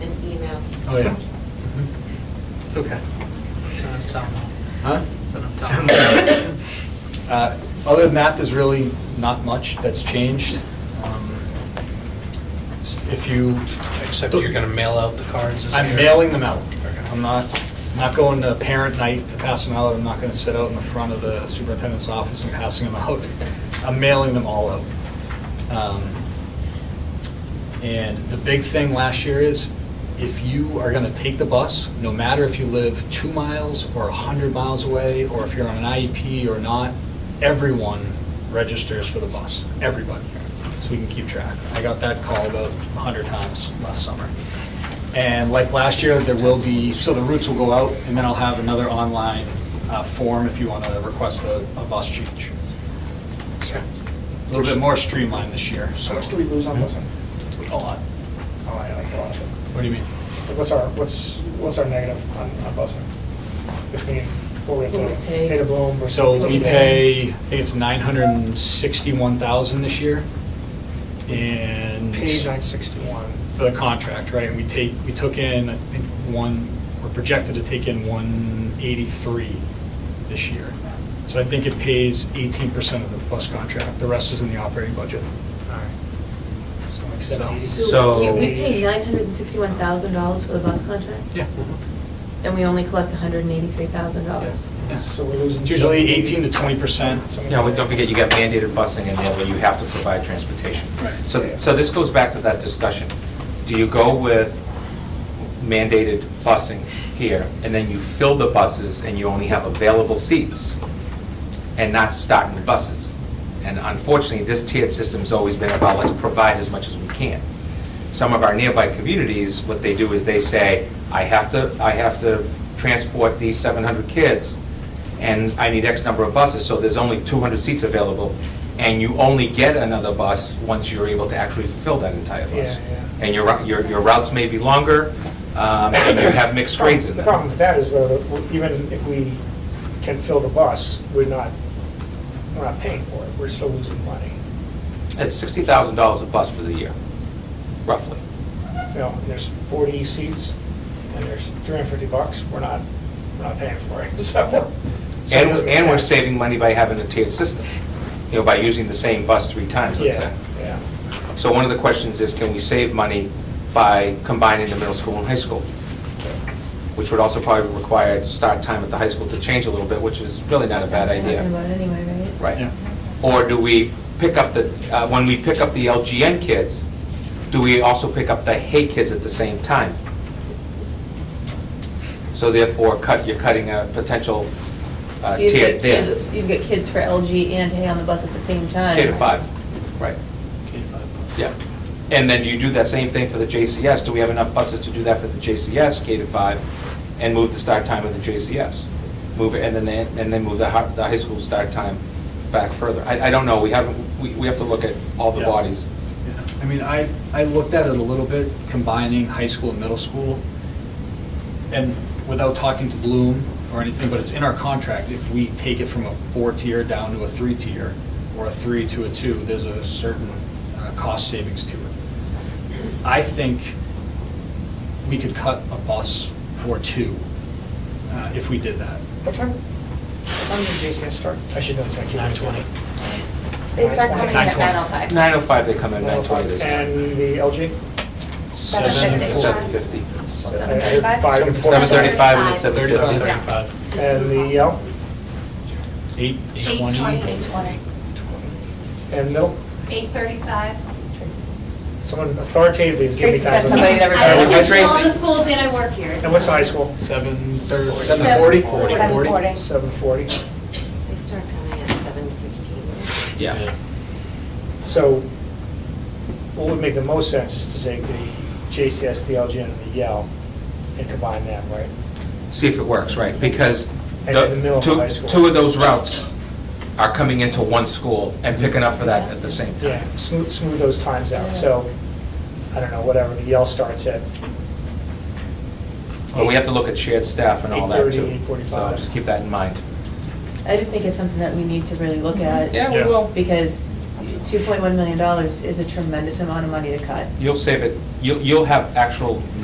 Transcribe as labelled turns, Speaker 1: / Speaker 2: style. Speaker 1: Oh, yeah.
Speaker 2: Mm-hmm. It's okay.
Speaker 3: It's enough time now.
Speaker 1: Huh?
Speaker 3: It's enough time.
Speaker 1: Uh, Other than that, there's really not much that's changed. Um, s- If you,
Speaker 3: Except you're gonna mail out the cards this year?
Speaker 1: I'm mailing them out.
Speaker 3: Okay.
Speaker 1: I'm not, not going to parent night to pass them out, I'm not going to sit out in the front of the superintendent's office and passing them out. I'm mailing them all out. Um, And the big thing last year is, if you are going to take the bus, no matter if you live two miles or 100 miles away, or if you're on an IEP or not, everyone registers for the bus, everybody, so we can keep track. I got that call about 100 times last summer. And like last year, there will be, so the routes will go out, and then I'll have another online uh, form if you want to request a a bus change.
Speaker 3: Okay.
Speaker 1: A little bit more streamlined this year, so.
Speaker 4: How much do we lose on this one?
Speaker 1: A lot.
Speaker 4: Oh, I know, it's a lot.
Speaker 1: What do you mean?
Speaker 4: But What's our, what's, what's our negative on, on busing? Between what we have
Speaker 5: What we
Speaker 4: to
Speaker 5: pay.
Speaker 4: pay to Bloom versus.
Speaker 1: So
Speaker 4: what
Speaker 1: we pay, I think it's 961,000 this year, and
Speaker 4: Paid nine sixty-one.
Speaker 1: for the contract, right? And we take, we took in, I think, one, we're projected to take in 183 this year. So I think it pays 18% of the bus contract, the rest is in the operating budget.
Speaker 4: So like seventy.
Speaker 5: So
Speaker 6: So-
Speaker 5: we- we pay nine hundred and sixty-one thousand dollars for the bus contract?
Speaker 1: Yeah.
Speaker 5: And we only collect hundred and eighty-three thousand dollars?
Speaker 4: So we're losing.
Speaker 1: It's usually
Speaker 4: 70.
Speaker 1: 18 to 20%.
Speaker 4: So we-
Speaker 6: No, but don't forget, you got mandated busing, and then you have to provide transportation.
Speaker 1: Right.
Speaker 6: So, so this goes back to that discussion. Do you go with mandated busing here, and then you fill the buses, and you only have available seats, and not stocking the buses? And unfortunately, this tiered system's always been about, let's provide as much as we can. Some of our nearby communities, what they do is they say, I have to, I have to transport these 700 kids, and I need X number of buses, so there's only 200 seats available, and you only get another bus once you're able to actually fill that entire bus.
Speaker 4: Yeah, yeah.
Speaker 6: And your, rou- your your routes may be longer, um, and you have mixed grades in
Speaker 4: The
Speaker 6: them.
Speaker 4: problem with that is though, that we're- even if we can fill the bus, we're not, we're not paying for it, we're still losing money.
Speaker 6: It's $60,000 a bus for the year, roughly.
Speaker 4: You know, and there's forty seats, and there's three hundred fifty bucks, we're not, we're not paying for it, so. so it
Speaker 6: And,
Speaker 4: doesn't make
Speaker 6: and we're
Speaker 4: sense.
Speaker 6: saving money by having a tiered system, you know, by using the same bus three times, let's
Speaker 4: Yeah,
Speaker 6: say.
Speaker 4: yeah.
Speaker 6: So one of the questions is, can we save money by combining the middle school and high school? Which would also probably require start time at the high school to change a little bit, which is really not a bad
Speaker 5: Talking
Speaker 6: idea.
Speaker 5: about anyway, right?
Speaker 6: Right.
Speaker 1: Yeah.
Speaker 6: Or do we pick up the, uh, when we pick up the LGN kids, do we also pick up the Hay kids at the same time? So therefore, cut, you're cutting a potential uh,
Speaker 5: So you've
Speaker 6: tier
Speaker 5: got
Speaker 6: there.
Speaker 5: kids- You've got kids for LG and hay on the bus at the same time?
Speaker 6: K to five, right, yeah. And then you do that same thing for the JCS, do we have enough buses to do that for the JCS, K to five, and move the start time of the JCS? Move it, and then, they- and then move the hi- the high school start time back further. I, I don't know, we haven't, we, we have to look at all the
Speaker 1: Yeah.
Speaker 6: bodies.
Speaker 1: Yeah, I mean, I, I looked at it a little bit, combining high school and middle school, and without talking to Bloom or anything, but it's in our contract, if we take it from a four-tier down to a three-tier, or a three to a two, there's a certain uh, cost savings to it. I think we could cut a bus or two uh, if we did that.
Speaker 4: What time, what time did JCS start? I should know, it's like. Nine twenty.
Speaker 7: They start coming in at
Speaker 1: 9:20.
Speaker 7: 9:05.
Speaker 6: Nine oh five, they come in, nine twenty this time.
Speaker 4: And the LG?
Speaker 1: Seven
Speaker 7: fifty.
Speaker 6: Seven fifty.
Speaker 4: I heard
Speaker 7: 7:35?
Speaker 4: Five and four.
Speaker 6: Seven thirty-five and then seven
Speaker 7: 7:35.
Speaker 6: fifty.
Speaker 3: 35.
Speaker 4: And the L,
Speaker 1: Eight,
Speaker 7: Eight
Speaker 1: twenty?
Speaker 7: twenty, eight twenty.
Speaker 4: and middle,
Speaker 7: Eight thirty-five.
Speaker 4: someone authoritatively is giving me
Speaker 7: Tracy's got
Speaker 4: times. on
Speaker 7: somebody
Speaker 4: that.
Speaker 7: that
Speaker 4: Uh,
Speaker 7: I
Speaker 4: high
Speaker 7: work
Speaker 4: school-
Speaker 7: in all the schools and I work here.
Speaker 4: And what's the high school?
Speaker 1: Seven thirty,
Speaker 4: Seven
Speaker 1: seven forty?
Speaker 7: forty.
Speaker 1: Forty?
Speaker 7: Seven forty.
Speaker 4: Seven forty.
Speaker 5: They start coming at seven fifteen.
Speaker 6: Yeah.
Speaker 4: So what would make the most sense is to take the JCS, the LG, and the Yale and combine them, right?
Speaker 6: See if it works, right, because
Speaker 4: And in the middle
Speaker 6: the,
Speaker 4: of high
Speaker 6: two,
Speaker 4: school.
Speaker 6: two of those routes are coming into one school and picking up for that at the same time.
Speaker 4: Yeah, smooth, smooth those times out. So, I don't know, whatever, the Yale starts at
Speaker 6: Well, we have to look at shared staff and all that, too.
Speaker 4: 8:30, 8:45.
Speaker 6: So just keep that in mind.
Speaker 5: I just think it's something that we need to really look at.
Speaker 6: Yeah, we
Speaker 1: Yeah.
Speaker 6: will.
Speaker 5: Because two point one million dollars is a tremendous amount of money to cut.
Speaker 6: You'll save it, you'll, you'll have actual